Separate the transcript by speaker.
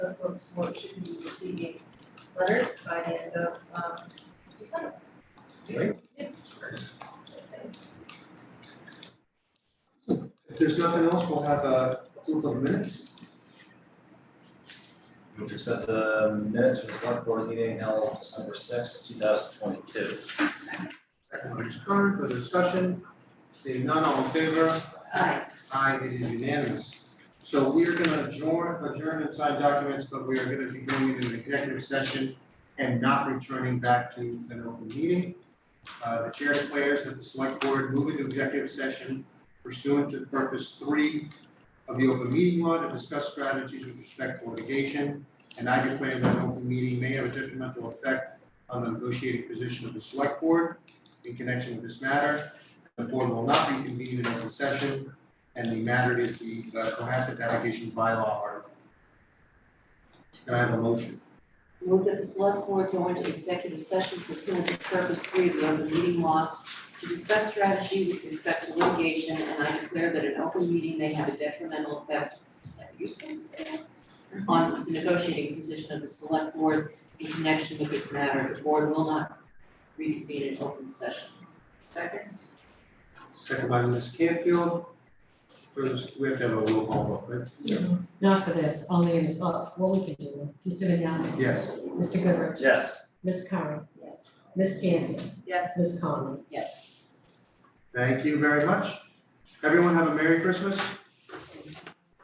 Speaker 1: the folks will should be receiving letters by the end of um December.
Speaker 2: Right.
Speaker 1: Yeah.
Speaker 2: If there's nothing else, we'll have a approval of minutes.
Speaker 3: Move to accept the minutes for the select board meeting held December sixth, two thousand twenty-two.
Speaker 2: Second by Mr. Curran, further discussion. Seeing none, all in favor?
Speaker 1: Aye.
Speaker 2: Aye, it is unanimous. So we are gonna adjourn, adjourn and sign documents, but we are gonna be going into an executive session and not returning back to an open meeting. Uh, the chair declares that the select board move into executive session pursuant to purpose three of the open meeting law to discuss strategies with respect to litigation. And I declare that an open meeting may have a detrimental effect on the negotiating position of the select board in connection with this matter. The board will not reconvene in open session and the matter is the uh, Cohasset Navigation Bylaw article. Can I have a motion?
Speaker 4: Move that the select board go into executive session pursuant to purpose three of the open meeting law to discuss strategy with respect to litigation, and I declare that an open meeting may have a detrimental effect, is that useful to say that? On the negotiating position of the select board in connection with this matter, the board will not reconvene in open session.
Speaker 1: Second?
Speaker 2: Second by Ms. Canfield. First, we have to have a roll call vote, right?
Speaker 5: Not for this, only, in- oh, what we can do, Mr. Vignani,
Speaker 2: Yes,
Speaker 5: Mr. Goodrich,
Speaker 3: Yes.
Speaker 5: Ms. Curran,
Speaker 4: Yes.
Speaker 5: Ms. Gandy,
Speaker 4: Yes.
Speaker 5: Ms. Conlon.
Speaker 4: Yes.
Speaker 2: thank you very much. Everyone have a Merry Christmas.